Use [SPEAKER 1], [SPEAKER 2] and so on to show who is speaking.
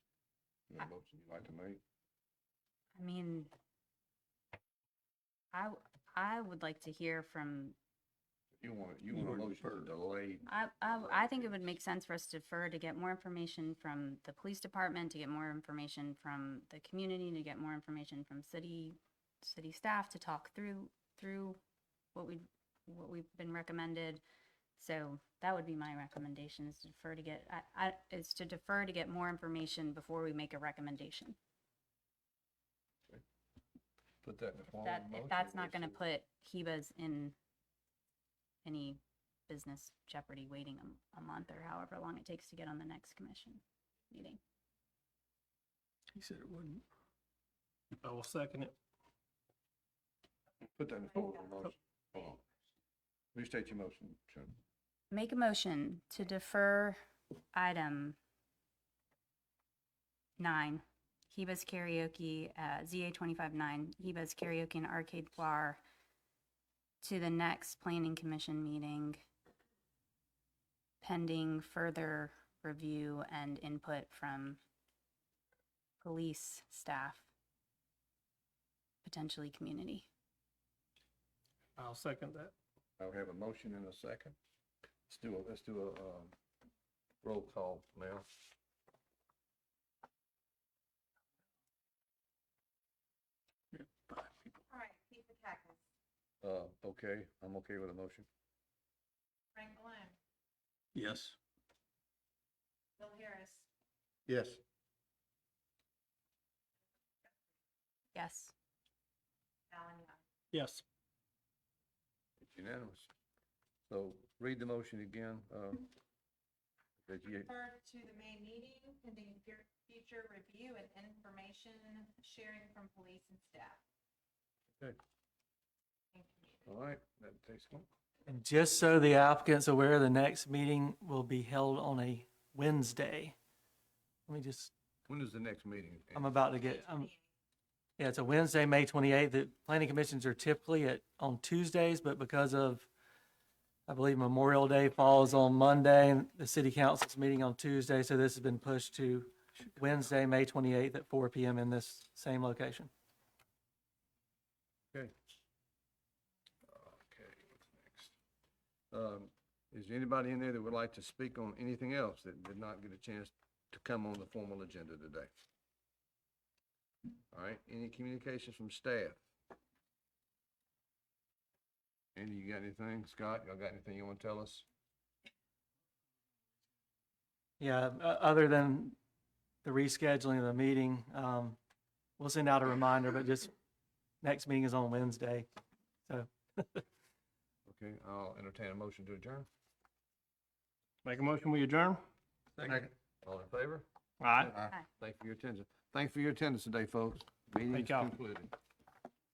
[SPEAKER 1] a motion you'd like to make?
[SPEAKER 2] I mean, I, w- I would like to hear from,
[SPEAKER 1] If You want, you want a motion to delay,
[SPEAKER 2] I, I, I think it would make sense for us to defer to get more information from the police department, to get more information from the community, to get more information from city, city staff, to talk through, through what we, what we've been recommended. So that would be my recommendation is to defer to get, I, I, is to defer to get more information before we make a recommendation.
[SPEAKER 1] put that in the form of
[SPEAKER 2] that,
[SPEAKER 1] a
[SPEAKER 2] if
[SPEAKER 1] motion.
[SPEAKER 2] that's not gonna
[SPEAKER 1] It's-
[SPEAKER 2] put Heba's in any business jeopardy waiting a, m- a month or however long it takes to get on the next commission meeting.
[SPEAKER 3] He said it wouldn't. I will second it.
[SPEAKER 1] Put that in the form of a
[SPEAKER 2] Oh.
[SPEAKER 1] motion. Hold on. Restate your motion, Chairman.
[SPEAKER 2] Make a motion to defer item nine, Heba's karaoke, uh, ZA twenty-five nine, Heba's karaoke and arcade bar to the next planning commission meeting pending further review and input from police staff, potentially community.
[SPEAKER 3] I'll second that.
[SPEAKER 1] I would have a motion in a second. Let's do a, let's do a, um, roll call now.
[SPEAKER 4] All right, Keith Bachakis,
[SPEAKER 1] Uh, okay, I'm okay with a motion.
[SPEAKER 4] Frank Balloon,
[SPEAKER 3] Yes.
[SPEAKER 4] Bill Harris,
[SPEAKER 1] Yes.
[SPEAKER 2] Yes.
[SPEAKER 4] Alan Young.
[SPEAKER 3] Yes.
[SPEAKER 1] It's unanimous. So read the motion again, uh, that you,
[SPEAKER 4] Refer to the May meeting pending fu- future review and information sharing from police and staff.
[SPEAKER 1] Okay.
[SPEAKER 4] And community.
[SPEAKER 1] all right, that takes one.
[SPEAKER 5] And just so the applicant's aware, the next meeting will be held on a Wednesday. Let me just,
[SPEAKER 1] When is the next meeting?
[SPEAKER 5] I'm about to get, um, yeah, it's a Wednesday, May twenty-eighth. The planning commissions are typically at, on Tuesdays, but because of, I believe Memorial Day falls on Monday and the city council's meeting on Tuesday, so this has been pushed to Wednesday, May twenty-eighth at four PM in this same location.
[SPEAKER 1] Okay. Okay, what's next? Um, is there anybody in there that would like to speak on anything else that did not get a chance to come on the formal agenda today? All right, any communications from staff? Andy, you got anything? Scott, y'all got anything you want to tell us?
[SPEAKER 5] Yeah, o- other than the rescheduling of the meeting, um, we'll send out a reminder, but just next meeting is on Wednesday. So
[SPEAKER 1] Okay, I'll entertain a motion to adjourn.
[SPEAKER 3] Make a motion, we adjourn?
[SPEAKER 1] Second. All in favor?
[SPEAKER 3] All right.
[SPEAKER 1] Thank you for your attention. Thank you for your attendance today, folks. Meeting is
[SPEAKER 3] Thank y'all.
[SPEAKER 1] concluded.